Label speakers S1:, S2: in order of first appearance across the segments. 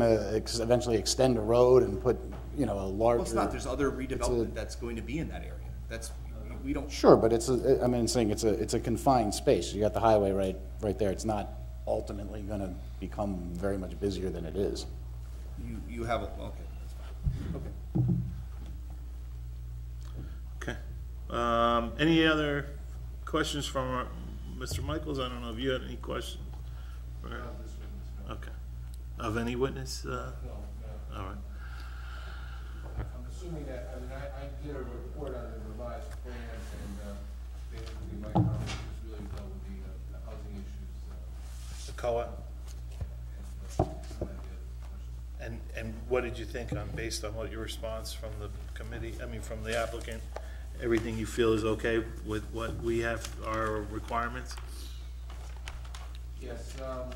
S1: to uh, ex- eventually extend a road and put, you know, a larger.
S2: Well, it's not, there's other redevelopment that's going to be in that area. That's, we don't,
S1: Sure, but it's, a- I mean, I'm saying it's a, it's a confined space. You got the highway right, right there. It's not ultimately going to become very much busier than it is.
S2: you, you have, a okay, that's fine, okay.
S3: Okay. Um, any other questions from our- Mr. Michaels? I don't know if you had any question. or- Okay. Of any witness? Uh, all right.
S4: I'm assuming that, I mean, I, I did a report on the revised plans and, uh, basically my comments just really dealt with the, uh, the housing issues, uh,
S3: Mr. Cohen,
S4: and, uh, some of the other questions.
S3: and, and what did you think on, based on what your response from the committee, I mean, from the applicant? Everything you feel is okay with what we have, our requirements?
S4: Yes, um,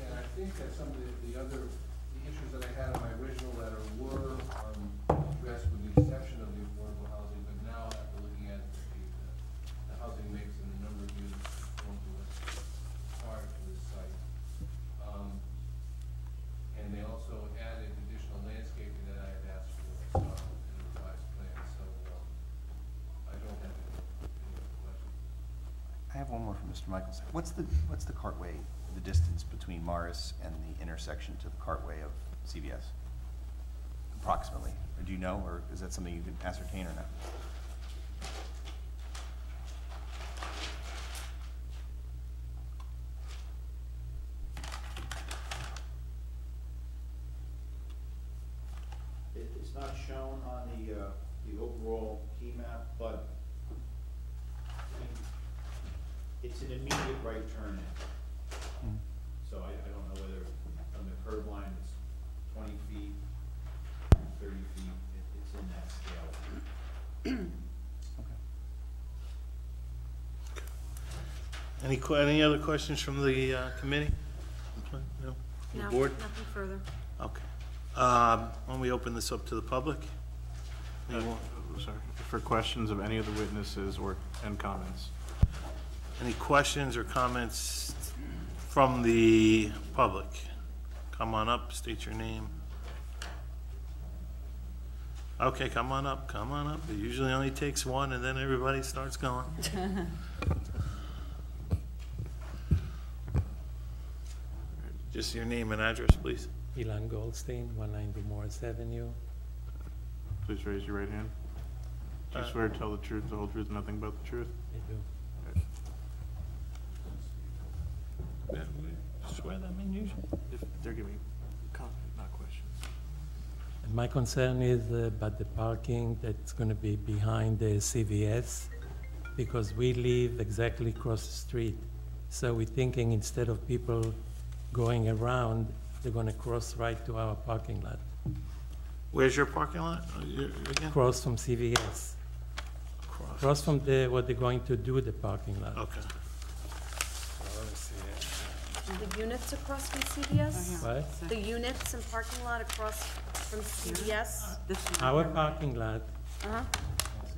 S4: and I think that some of the, the other, the issues that I had in my original letter were, um, addressed with the exception of the affordable housing, but now after looking at the, the, the housing mix and the number of units that's going to us prior to this site, um, and they also added additional landscaping that I had asked for, um, in the revised plan, so, um, I don't have any, any other questions.
S5: I have one more for Mr. Michaels. What's the, what's the cartway, the distance between Morris and the intersection to the cartway of CVS? Approximately, or do you know, or is that something you can ascertain or not?
S6: It, it's not shown on the, uh, the overall key map, but it's an immediate right turn in. So I, I don't know whether from the curb line it's twenty feet, thirty feet, it, it's in that scale.
S3: Any, que- any other questions from the uh, committee? No? The
S7: No,
S3: Board?
S7: nothing further.
S3: Okay. Um, When we open this up to the public? Any more-
S8: Sorry, for questions of any of the witnesses or, and comments.
S3: Any questions or comments from the public? Come on up, state your name. Okay, come on up, come on up. It usually only takes one, and then everybody starts going. Just your name and address, please.
S9: Elon Goldstein, 190 Morris Avenue.
S8: Please raise your right hand. Do you
S3: Uh,
S8: swear to tell the truth, the whole truth, and nothing but the truth?
S9: I do.
S3: Yeah, we Swear that man usually.
S8: If they're giving comments, not questions.
S9: And my concern is uh, about the parking that's going to be behind the CVS because we live exactly across the street. So we're thinking instead of people going around, they're going to cross right to our parking lot,
S3: Where's your parking lot? Uh, your- again?
S9: cross from CVS,
S3: Across.
S9: cross from the, what they're going to do, the parking lot.
S3: Okay. Let me see it.
S7: The units across from CVS?
S9: Right?
S7: The units and parking lot across from CVS?
S9: Our parking lot,
S7: Uh-huh.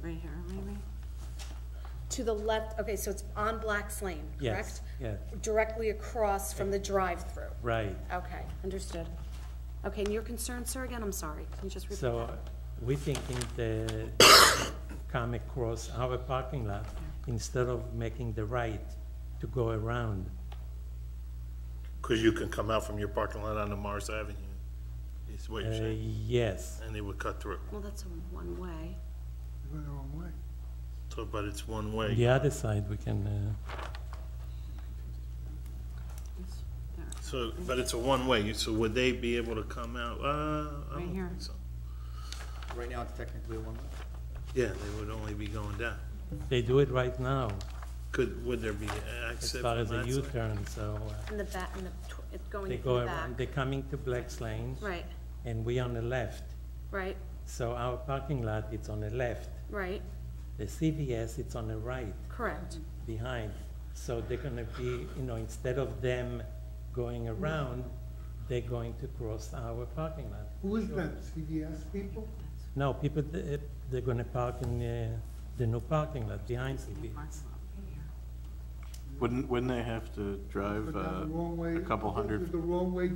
S10: Right here, maybe?
S7: To the left, okay, so it's on Black's Lane, correct?
S9: yes, yeah,
S7: Directly across from the drive-through?
S9: right.
S7: Okay, understood. Okay, and your concern, sir, again, I'm sorry, can you just repeat
S9: So uh,
S7: that?
S9: we thinking the come across our parking lot instead of making the right to go around.
S3: Because you can come out from your parking lot onto Mars Avenue, is what
S9: Uh,
S3: you're saying,
S9: yes,
S3: and they would cut through.
S7: Well, that's a one-way.
S3: So, but it's one
S9: on
S3: way.
S9: the other side, we can, uh,
S10: It's there.
S3: So, but it's a one way, You- so would they be able to come out? Uh, I
S10: Right
S3: don't
S10: here.
S3: think so.
S2: Right now, it's technically a one-way.
S3: Yeah, they would only be going down.
S9: they do it right now
S3: Could, would there be
S9: as
S3: access
S9: far
S3: on
S9: as a
S3: that side?
S9: U-turn, so uh,
S7: In the back, in the, tw- it's going
S9: they
S7: in the
S9: go
S7: back.
S9: around, they're coming to Black's Lane
S7: Right,
S9: and we on the left.
S7: right,
S9: So our parking lot, it's on the left.
S7: right,
S9: The CVS, it's on the right.
S7: correct.
S9: behind. So they're gonna be, you know, instead of them going around, they're going to cross our parking lot.
S11: Who is that, CVS people?
S9: No, people, they- they're gonna park in uh, the new parking lot behind
S10: It's in the
S9: CVS.
S10: parking lot, right here.
S8: Wouldn't, wouldn't they have uh, to drive
S11: Go down
S8: uh,
S11: the wrong way,
S8: a couple
S11: go through
S8: hundred
S11: The wrong way